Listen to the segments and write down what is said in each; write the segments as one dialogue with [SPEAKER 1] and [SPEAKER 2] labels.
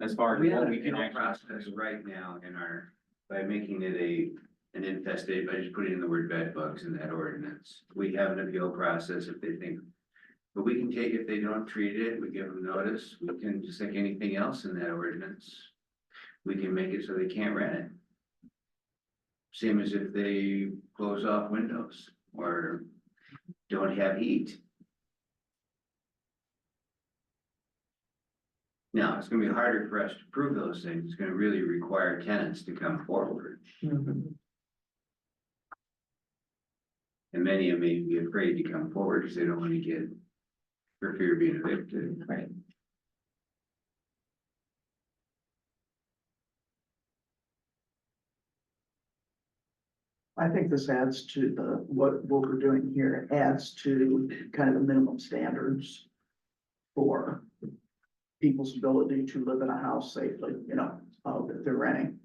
[SPEAKER 1] as far
[SPEAKER 2] We
[SPEAKER 1] as
[SPEAKER 2] had
[SPEAKER 1] what
[SPEAKER 2] a
[SPEAKER 1] we can
[SPEAKER 2] funeral
[SPEAKER 1] actually.
[SPEAKER 2] process right now in our, by making it a, an infested, by just putting in the word bed bugs in that ordinance. We have an appeal process if they think. But we can take, if they don't treat it, we give them notice, we can, just like anything else in that ordinance. We can make it so they can't rent it. Same as if they close off windows or don't have heat. Now, it's gonna be harder for us to prove those things. It's gonna really require tenants to come forward. And many of them may be afraid to come forward because they don't want to get, for fear of being evicted.
[SPEAKER 3] Right.
[SPEAKER 4] I think this adds to the, what, what we're doing here adds to kind of the minimum standards for people's ability to live in a house safely, you know, uh, that they're renting.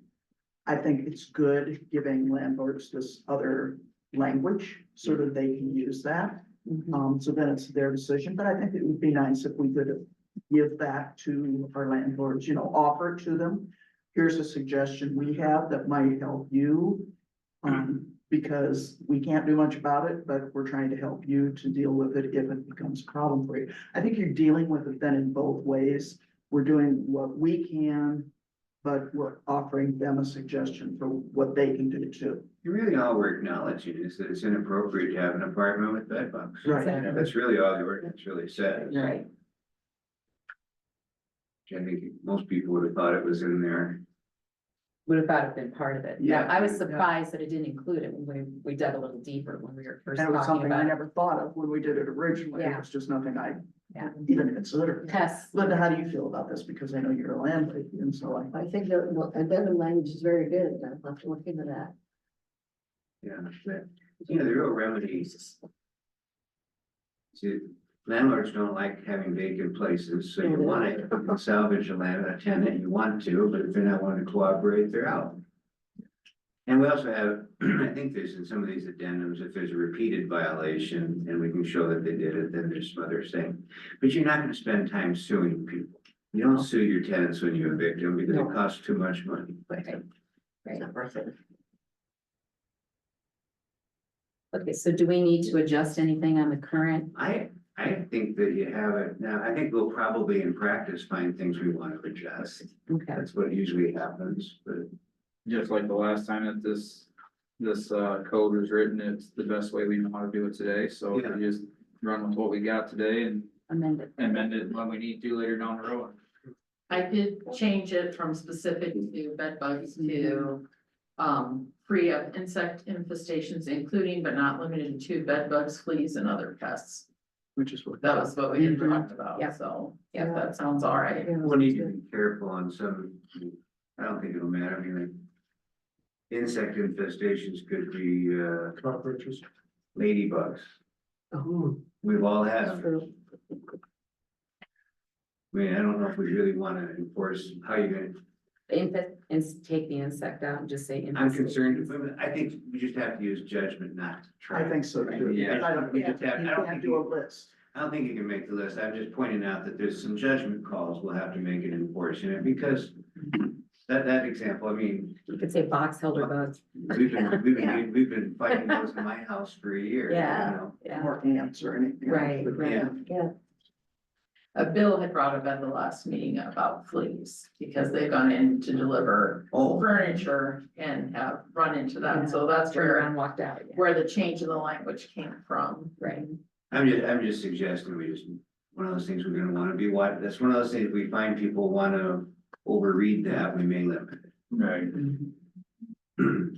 [SPEAKER 4] I think it's good giving landlords this other language so that they can use that. Um, so then it's their decision, but I think it would be nice if we could give that to our landlords, you know, offer it to them. Here's a suggestion we have that might help you. Um, because we can't do much about it, but we're trying to help you to deal with it if it becomes a problem for you. I think you're dealing with it then in both ways. We're doing what we can, but we're offering them a suggestion for what they can do too.
[SPEAKER 2] Really, all we're acknowledging is that it's inappropriate to have an apartment with bedbugs.
[SPEAKER 4] Right.
[SPEAKER 3] Exactly.
[SPEAKER 2] That's really all the ordinance really says.
[SPEAKER 3] Right,
[SPEAKER 2] I think most people would have thought it was in there.
[SPEAKER 3] would have thought it'd been part of it. Yeah,
[SPEAKER 2] Yeah.
[SPEAKER 3] I was surprised that it didn't include it when we, we dug a little deeper when we were first
[SPEAKER 4] That was
[SPEAKER 3] talking
[SPEAKER 4] something I
[SPEAKER 3] about it.
[SPEAKER 4] never thought of when we did it originally. It
[SPEAKER 3] Yeah.
[SPEAKER 4] was just nothing I
[SPEAKER 3] Yeah.
[SPEAKER 4] even considered.
[SPEAKER 3] Yes,
[SPEAKER 4] Linda, how do you feel about this? Because I know you're a landlady and so I,
[SPEAKER 5] I think that, well, and then the language is very good, I'll have to look into that.
[SPEAKER 2] Yeah. but, You know, the real remedy is to landlords don't like having vacant places, so you want to salvage a land, a tenant, you want to, but if they're not wanting to cooperate, they're out. And we also have, I think there's in some of these addendums, if there's a repeated violation and we can show that they did it, then there's some other thing. But you're not gonna spend time suing people. You don't sue your tenants when you evict them because
[SPEAKER 5] No.
[SPEAKER 2] it costs too much money.
[SPEAKER 3] right.
[SPEAKER 5] It's not worth it.
[SPEAKER 3] Okay, so do we need to adjust anything on the current?
[SPEAKER 2] I, I think that you have it now. I think we'll probably in practice find things we want to adjust.
[SPEAKER 3] Okay,
[SPEAKER 2] That's what usually happens, but
[SPEAKER 1] Just like the last time that this, this uh code was written, it's the best way we know how to do it today, so we
[SPEAKER 2] Yeah.
[SPEAKER 1] just run with what we got today and
[SPEAKER 3] amended.
[SPEAKER 1] amend it when we need to later down the road.
[SPEAKER 6] I did change it from specific to bed bugs to um free of insect infestations, including but not limited to bed bugs, fleas and other pests.
[SPEAKER 4] which is what.
[SPEAKER 6] That was what we had talked about,
[SPEAKER 3] Mm-hmm. Yeah.
[SPEAKER 6] so
[SPEAKER 3] Yeah.
[SPEAKER 6] if that sounds all right.
[SPEAKER 5] Yeah.
[SPEAKER 2] we'll need to be careful on some, I don't think it'll matter. I mean, like. Insect infestations could be uh
[SPEAKER 4] Cockroaches.
[SPEAKER 2] ladybugs.
[SPEAKER 5] Oh,
[SPEAKER 2] We've all had
[SPEAKER 5] that's
[SPEAKER 2] them.
[SPEAKER 5] true.
[SPEAKER 2] I mean, I don't know if we really want to enforce how you're gonna
[SPEAKER 3] Infest, ins- take the insect out and just say.
[SPEAKER 2] I'm
[SPEAKER 3] infestation.
[SPEAKER 2] concerned, I think we just have to use judgment not to try.
[SPEAKER 4] I think so too.
[SPEAKER 1] Yeah.
[SPEAKER 4] I don't,
[SPEAKER 2] We
[SPEAKER 4] you
[SPEAKER 2] just have- I don't
[SPEAKER 4] can't
[SPEAKER 2] think
[SPEAKER 4] do a
[SPEAKER 2] you-
[SPEAKER 4] list.
[SPEAKER 2] I don't think you can make the list. I'm just pointing out that there's some judgment calls we'll have to make in enforcing it because that, that example, I mean,
[SPEAKER 3] You could say box elder bugs,
[SPEAKER 2] we've been, we've been, we've been fighting those in my house for a year. you
[SPEAKER 3] Yeah.
[SPEAKER 2] know?
[SPEAKER 3] yeah.
[SPEAKER 4] Or ants or anything.
[SPEAKER 3] Right,
[SPEAKER 4] But-
[SPEAKER 3] right.
[SPEAKER 2] Yeah.
[SPEAKER 5] Yeah,
[SPEAKER 6] A Uh, bill had brought up at the last meeting about fleas because they've gone in to deliver
[SPEAKER 2] Oh,
[SPEAKER 6] furniture and have run into that. So that's
[SPEAKER 3] Turned
[SPEAKER 6] where
[SPEAKER 3] around, walked out, yeah,
[SPEAKER 6] where the change in the language came from.
[SPEAKER 3] right.
[SPEAKER 2] I'm just, I'm just suggesting we just, one of those things we're gonna wanna be, what, that's one of those things we find people wanna overread that, we may limit
[SPEAKER 1] Right.
[SPEAKER 2] it.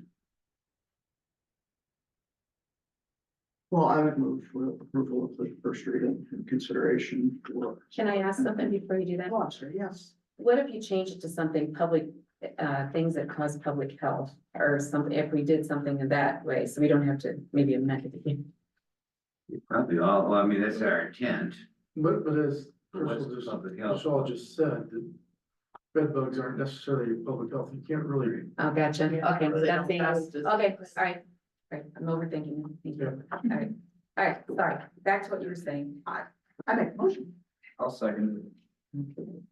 [SPEAKER 4] Well, I would move for approval of the first reading and consideration for.
[SPEAKER 3] Can I ask something before you do that?
[SPEAKER 4] Lobster, yes.
[SPEAKER 3] What if you change it to something public, uh, things that cause public health or something, if we did something in that way, so we don't have to maybe amend it again?
[SPEAKER 2] Probably all, well, I mean, that's our intent,
[SPEAKER 7] But, but as
[SPEAKER 2] but what's
[SPEAKER 7] Crystal just,
[SPEAKER 2] public health?
[SPEAKER 7] Michelle just said, that bed bugs aren't necessarily public health, you can't really.
[SPEAKER 3] Oh, gotcha,
[SPEAKER 6] Yeah,
[SPEAKER 3] okay,
[SPEAKER 6] or they
[SPEAKER 3] that's
[SPEAKER 6] don't
[SPEAKER 3] the,
[SPEAKER 6] pass
[SPEAKER 3] okay,
[SPEAKER 6] disease.
[SPEAKER 3] all right, right, I'm overthinking, it. thank you, all right. All right, sorry, back to what you were saying.
[SPEAKER 4] I make a motion.
[SPEAKER 1] I'll second it.